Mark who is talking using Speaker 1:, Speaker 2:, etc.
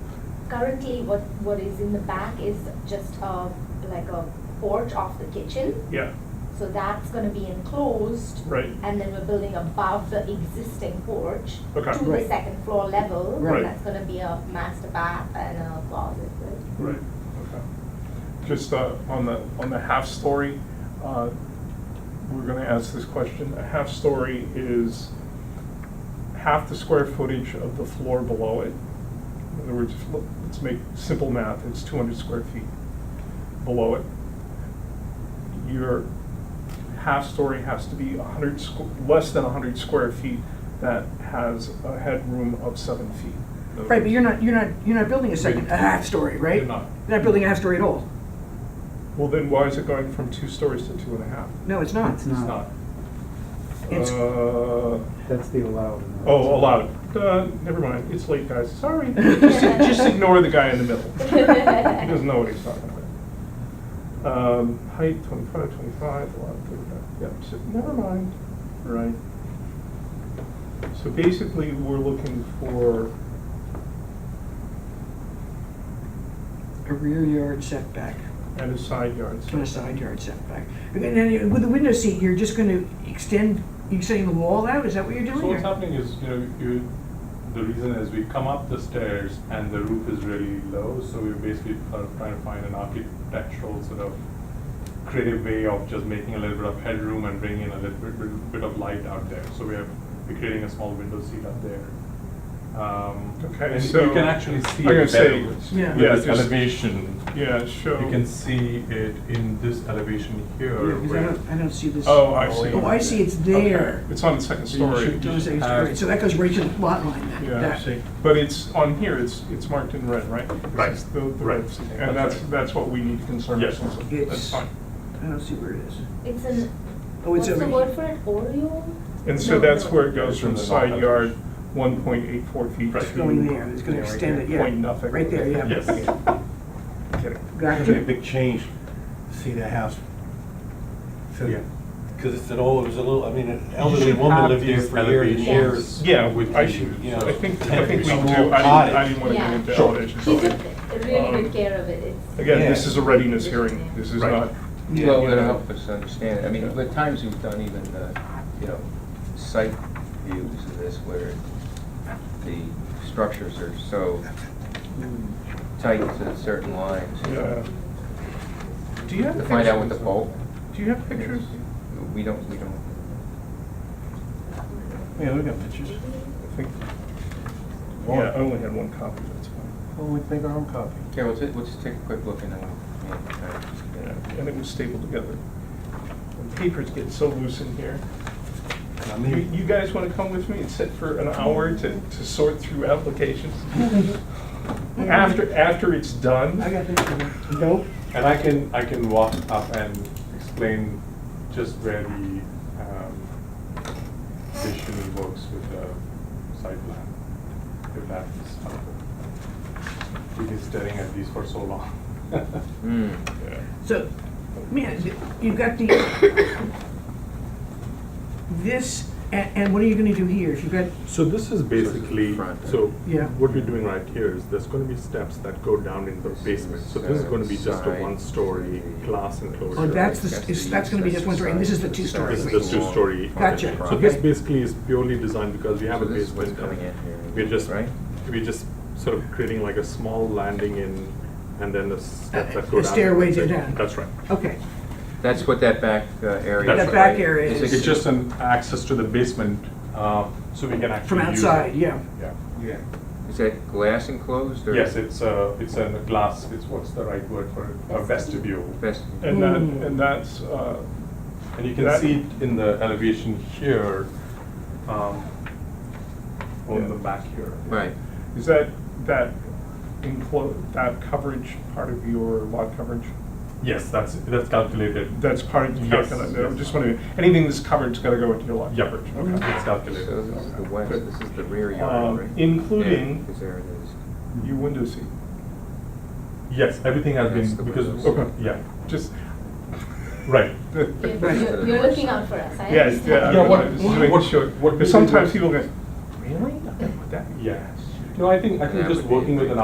Speaker 1: currently what, what is in the back is just a, like a porch off the kitchen.
Speaker 2: Yeah,
Speaker 1: So that's gonna be enclosed
Speaker 2: right,
Speaker 1: and then we're building above the existing porch
Speaker 2: Okay.
Speaker 1: to the
Speaker 3: Right.
Speaker 1: second floor level. and
Speaker 2: Right.
Speaker 1: That's gonna be a master bath and a closet. right?
Speaker 2: right, okay. Just uh, on the, on the half-story, uh, we're gonna ask this question. A half-story is half the square footage of the floor below it. In other words, if- let's make simple math, it's 200 square feet below it. Your half-story has to be 100, squ- less than 100 square feet that has a headroom of seven feet. In other
Speaker 3: Right, but
Speaker 2: words-
Speaker 3: you're not, you're not, you're not building a second, a half story, right?
Speaker 2: You're not.
Speaker 3: You're not building a half story at all.
Speaker 2: Well, then why is it going from two stories to two and a half?
Speaker 3: No, it's not.
Speaker 4: It's not.
Speaker 3: It's-
Speaker 2: Uh,
Speaker 4: That's the allowed. amount.
Speaker 2: oh, allowed. Uh, never mind. It's late, guys. Sorry. just, just ignore the guy in the middle. He doesn't know what he's talking about. Um, height 25, 25, allowed 35. Yep. So never mind. Right. So basically, we're looking for
Speaker 3: A rear yard setback
Speaker 2: at a side yard.
Speaker 3: and a side yard setback. And then you- with the window seat, you're just gonna extend, you're extending the wall out, is that what you're doing?
Speaker 5: So what's
Speaker 3: or-
Speaker 5: happening is, you know, you, the reason is we come up the stairs and the roof is really low, so we're basically kind of trying to find an architectural sort of creative way of just making a little bit of headroom and bringing in a little bit, bit- bit of light out there. So we are, we're creating a small window seat up there. Um,
Speaker 2: Okay,
Speaker 5: and
Speaker 2: so
Speaker 5: You can actually
Speaker 2: I'm
Speaker 5: see
Speaker 2: gonna
Speaker 5: it better
Speaker 2: say,
Speaker 5: with
Speaker 3: Yeah.
Speaker 2: yeah,
Speaker 5: this
Speaker 2: just-
Speaker 5: elevation.
Speaker 2: Yeah, show.
Speaker 5: You can see it in this elevation
Speaker 3: Yeah,
Speaker 5: here.
Speaker 3: 'cause I
Speaker 5: where-
Speaker 3: don't, I don't see this.
Speaker 2: Oh, I see.
Speaker 3: Oh, I see, it's there.
Speaker 2: Okay, It's on the second
Speaker 5: So you
Speaker 2: story.
Speaker 5: should
Speaker 3: So it's- it's
Speaker 5: Uh,
Speaker 3: great. So that goes right to the lot line then.
Speaker 2: Yeah, I
Speaker 3: that.
Speaker 2: see. But it's, on here, it's, it's marked in red, right?
Speaker 5: Right.
Speaker 2: It's the- the
Speaker 5: Right.
Speaker 2: red seat. And that's, that's what we need to concern
Speaker 5: Yes.
Speaker 2: ourselves with. That's
Speaker 3: It's,
Speaker 2: fine.
Speaker 3: I don't see where it is.
Speaker 1: It's an,
Speaker 3: Oh,
Speaker 1: what's
Speaker 3: it's over
Speaker 1: the
Speaker 3: here.
Speaker 1: word for it, Oreo?
Speaker 2: And so
Speaker 1: No,
Speaker 2: that's
Speaker 1: no.
Speaker 2: where it goes
Speaker 5: It's
Speaker 2: from
Speaker 5: in the
Speaker 2: side
Speaker 5: lot.
Speaker 2: yard, 1.84 feet to.
Speaker 5: Right.
Speaker 3: It's going there, it's gonna
Speaker 4: Yeah, right
Speaker 3: extend
Speaker 4: there.
Speaker 3: it, yeah.
Speaker 2: Point nothing.
Speaker 3: Right there, yeah.
Speaker 5: Yes.
Speaker 2: Kidding.
Speaker 4: It's gonna be a
Speaker 3: Gotcha.
Speaker 4: big change, to see the house.
Speaker 5: Yeah.
Speaker 4: Because it's an old, it was a little, I mean, an elderly
Speaker 5: should
Speaker 4: woman
Speaker 5: have
Speaker 4: lived here
Speaker 5: these
Speaker 4: for years
Speaker 5: elevations.
Speaker 4: and years.
Speaker 2: Yeah,
Speaker 5: With
Speaker 2: I
Speaker 5: the,
Speaker 2: should,
Speaker 4: you know,
Speaker 2: I think, I
Speaker 4: tent
Speaker 2: think we
Speaker 4: small
Speaker 2: do. I didn't, I
Speaker 4: cottage.
Speaker 2: didn't want to get
Speaker 1: Yeah.
Speaker 2: into
Speaker 4: Sure.
Speaker 2: elevations.
Speaker 1: She
Speaker 2: so-
Speaker 1: took really good care of it. It's-
Speaker 2: Again, this
Speaker 4: Yeah.
Speaker 2: is a readiness hearing. This is
Speaker 5: Right.
Speaker 2: not.
Speaker 3: Yeah.
Speaker 6: Well,
Speaker 2: you
Speaker 6: it'll
Speaker 2: know.
Speaker 6: help us understand it. I mean, the times we've done even, uh, you know, site views of this where the structures are so tight to certain lines. you know.
Speaker 2: Yeah. Do you have
Speaker 6: To
Speaker 2: pictures?
Speaker 6: find out what the bulk.
Speaker 2: Do you have pictures?
Speaker 6: We don't, we don't.
Speaker 4: Yeah, we got pictures.
Speaker 2: I think, yeah,
Speaker 4: One.
Speaker 2: I only had one copy, that's fine.
Speaker 4: Well, we make our own copy.
Speaker 6: Yeah, let's, let's take a quick look and then we'll. yeah, all right.
Speaker 2: Yeah, and it was stapled together. And Papers get so loose in here.
Speaker 4: I
Speaker 2: You
Speaker 4: mean,
Speaker 2: you guys want to come with me and sit for an hour to, to sort through applications? After, after it's done?
Speaker 3: I got this. Nope.
Speaker 5: And I can, I can walk up and explain just where the um, vision works with the site plan, if that is helpful. We've been staring at these for so long.
Speaker 6: Hmm.
Speaker 2: Yeah.
Speaker 3: So, man, you've got the, this, and, and what are you gonna do here? If you've got,
Speaker 5: So this is basically,
Speaker 6: front,
Speaker 5: so
Speaker 3: Yeah.
Speaker 5: what we're doing right here is there's gonna be steps that go down in the basement. So this is gonna be just a
Speaker 6: Side.
Speaker 5: one-story glass enclosure.
Speaker 3: Oh, that's the- is- that's gonna be just one story, and this is the two-story.
Speaker 5: This is the two-story.
Speaker 3: Gotcha.
Speaker 5: So this
Speaker 3: Okay.
Speaker 5: basically is purely designed because we have
Speaker 6: So
Speaker 5: a
Speaker 6: this is what's
Speaker 5: basement. and
Speaker 6: coming in here,
Speaker 5: We're just,
Speaker 6: right?
Speaker 5: we're just sort of creating like a small landing in and then the steps that go down.
Speaker 3: A stairway to
Speaker 5: That's it.
Speaker 3: down.
Speaker 5: That's right.
Speaker 3: okay,
Speaker 6: That's what that back uh, area.
Speaker 5: That's
Speaker 6: is,
Speaker 5: That back
Speaker 6: right?
Speaker 3: area
Speaker 6: Is
Speaker 3: is-
Speaker 6: it-
Speaker 5: It's just an access to the basement, uh, so we can actually
Speaker 3: from
Speaker 5: use it.
Speaker 3: outside, yeah.
Speaker 5: Yeah.
Speaker 6: Yeah. Is that glass enclosed or?
Speaker 5: Yes, it's a, it's a glass, it's, what's the right word for it? A vestibule.
Speaker 6: Best-
Speaker 2: And that,
Speaker 3: Mm.
Speaker 2: and that's, uh,
Speaker 5: And you can
Speaker 2: That-
Speaker 5: see it in the elevation here, um,
Speaker 2: Yeah.
Speaker 5: on the back here.
Speaker 6: Right.
Speaker 2: is that, that enclosed, that coverage part of your lot coverage?
Speaker 5: Yes, that's, that's calculated.
Speaker 2: That's part of your
Speaker 5: Yes,
Speaker 2: calculation, I
Speaker 5: yes.
Speaker 2: just want to, anything that's covered's got to go into your lot
Speaker 5: Yep, Mm-hmm.
Speaker 2: coverage, okay?
Speaker 5: it's
Speaker 6: So
Speaker 5: calculated.
Speaker 6: this is the west,
Speaker 2: Good.
Speaker 6: this is the rear
Speaker 2: Um,
Speaker 6: yard, right?
Speaker 2: including-
Speaker 6: Yeah, 'cause there it is.
Speaker 2: Your window seat,
Speaker 5: Yes, everything has
Speaker 6: That's the
Speaker 5: been, because,
Speaker 6: windows.
Speaker 5: okay, yeah,
Speaker 2: just.
Speaker 5: right.
Speaker 1: You're,
Speaker 3: Right.
Speaker 1: you're- you're looking out for us, I
Speaker 2: Yes,
Speaker 1: understand.
Speaker 2: yeah. I
Speaker 5: Yeah,
Speaker 2: mean,
Speaker 5: what-
Speaker 2: just
Speaker 5: what-
Speaker 2: to make
Speaker 5: what-
Speaker 2: sure.
Speaker 5: what
Speaker 2: Because
Speaker 5: we did
Speaker 2: sometimes
Speaker 5: was-
Speaker 2: people go, really? Nothing with that?
Speaker 5: Yeah. No, I think, I
Speaker 6: And
Speaker 5: think
Speaker 6: that
Speaker 5: just
Speaker 6: would be a
Speaker 5: working with
Speaker 6: great-
Speaker 5: an